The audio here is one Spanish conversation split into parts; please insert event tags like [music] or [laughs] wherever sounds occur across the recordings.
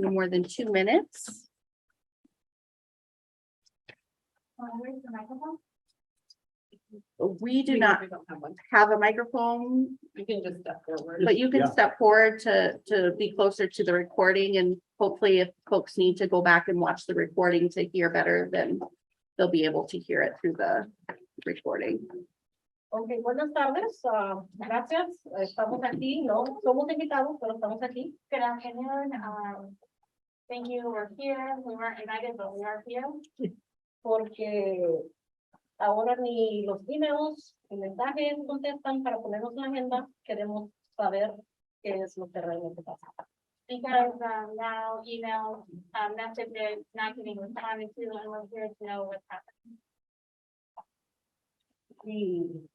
no more than two minutes. Where's the microphone? We do not We don't have one. have a microphone, You can just step forward. but you can Yeah. step forward to, to be closer to the recording and hopefully if folks need to go back and watch the recording to hear better, then they'll be able to hear it through the recording. Ok, buenas tardes, ah, gracias, estamos aquí, no, somos invitados, pero estamos aquí. Good afternoon. Um, thank you. We're here. We weren't invited, but we are here. porque ahora ni los emails, ni mensajes contestan para ponernos en la agenda, queremos saber qué es lo que realmente pasa. Because, um, now email, um, messages not getting responded to and we're here to know what's happening. Y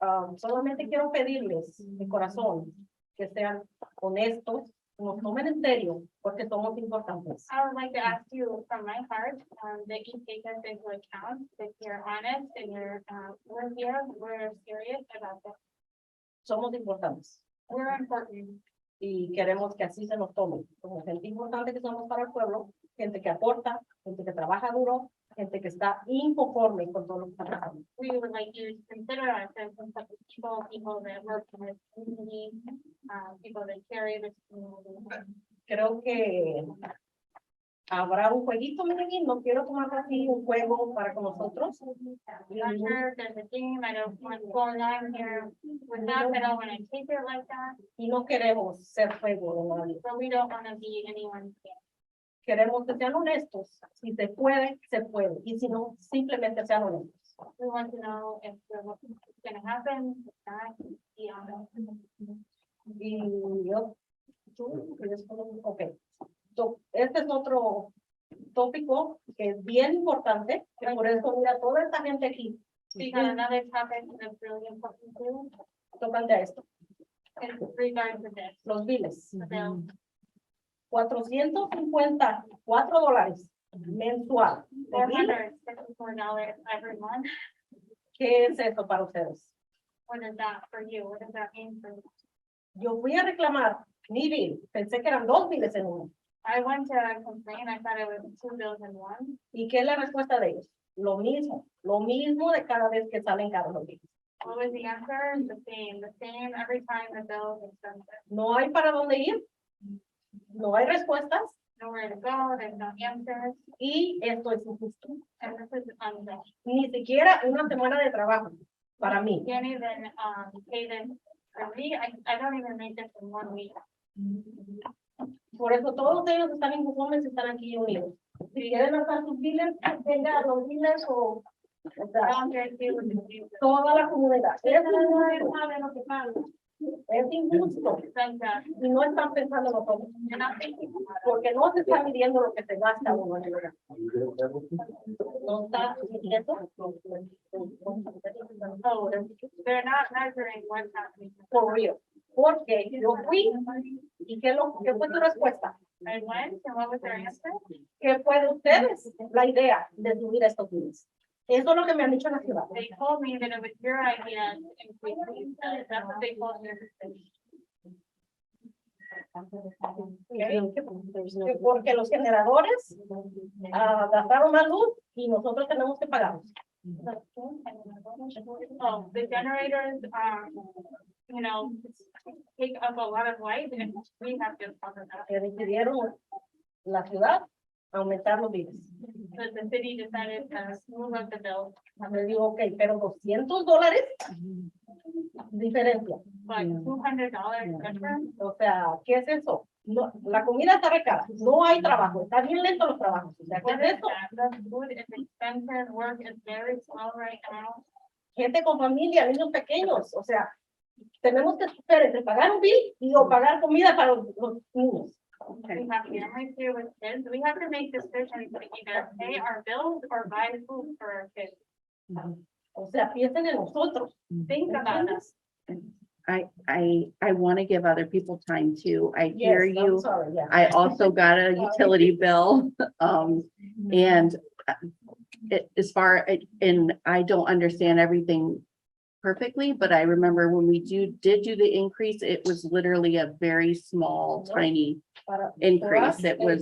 ah, solamente quiero pedirles de corazón que sean honestos, nos tomen en serio, porque somos importantes. I would like to ask you from my heart, um, that you take us into account, that you're honest and you're, uh, we're here, we're serious about this. Somos importantes We're important. y queremos que así se nos tome, como gente importante que somos para el pueblo, gente que aporta, gente que trabaja duro, gente que está inconforme con todo lo que está pasando. We would like you to consider ourselves as some people, people that work in this community, uh, people that carry this community. creo que habrá un jueguito, miren, no quiero tomar así un juego para con nosotros. I'm not sure if there's a game, I don't want to go on here with that, I don't want to take it like that, Y no queremos ser juego de nadie. but we don't want to be anyone's game. Queremos que sean honestos. Si se puede, se puede. Y si no, simplemente sean honestos. We want to know if we're looking- it's gonna happen, if not, be honest. Y yo, tú, que yo solo- ok. So, este es otro tópico que es bien importante. que por eso, mira, toda esta gente aquí We got another topic that's really important too, tocante a esto. in regards to this, Los biles. about 454 dólares mensual. four ¿Sí? hundred fifty-four dollars every month. ¿Qué es eso para ustedes? What is that for you? What does that mean for you? Yo fui a reclamar mi bill, pensé que eran dos biles en uno. I went to complain, I thought it was two bills in one. ¿Y qué es la respuesta de ellos? Lo mismo, lo mismo de cada vez que salen caros los biles. What was the answer? The same, the same every time the bill is expensive. No hay para dónde ir, no hay respuestas nowhere to go, there's no answers, y esto es injusto. and this is unjust. Ni siquiera una semana de trabajo para mí. Can't even, um, pay this for me, I, I don't even make this in one week. Por eso todos ellos están inconformes y están aquí unidos. Si quieren lanzar sus dealers, venga a los dealers o, o I sea, don't care if you would do this. toda la comunidad. Es injusto, Saben lo que pagan, es injusto it's unjust. y no están pensando nosotros, They're not thinking about it. porque no se está midiendo lo que se gasta uno en el hogar. No está midiendo. Oh, They're not measuring what's happening. Por real. Porque yo fui y qué lo, qué fue tu respuesta? I went, and what was their answer? ¿Qué fue de ustedes la idea de subir estos bienes? Eso es lo que me han dicho en la ciudad. They told me that it was your idea, and we, that's what they told me. Que Porque los generadores ah, gastaron más luz y nosotros tenemos que pagarlos. Oh, the generators, um, you know, take up a lot of light and we have to cover that. Que decidieron la ciudad aumentar los biles. But the city decided to move up the bill, Le digo, ok, pero 200 dólares diferencia. like two hundred dollars difference. O sea, ¿qué es eso? No, la comida está re cara, no hay trabajo, está bien lento los trabajos. O sea, ¿qué What es is eso? that? The food is expensive, work is very slow right now. Gente con familia, niños pequeños, o sea, tenemos que escoger entre pagar un bill y o pagar comida para los, los niños. Okay, We have families here with kids. We have to make decisions to either pay our bills or buy food for our kids. O sea, piensen en nosotros. Think about us. I, I, I want to give other people time too. I hear Yes, I'm you. sorry, yeah. I also got [laughs] a utility bill, [laughs] um, Mm-hmm. and uh, it, as far, uh, and I don't understand everything perfectly, but I remember when we do, did do the increase, it was literally a very small, tiny para increase. It was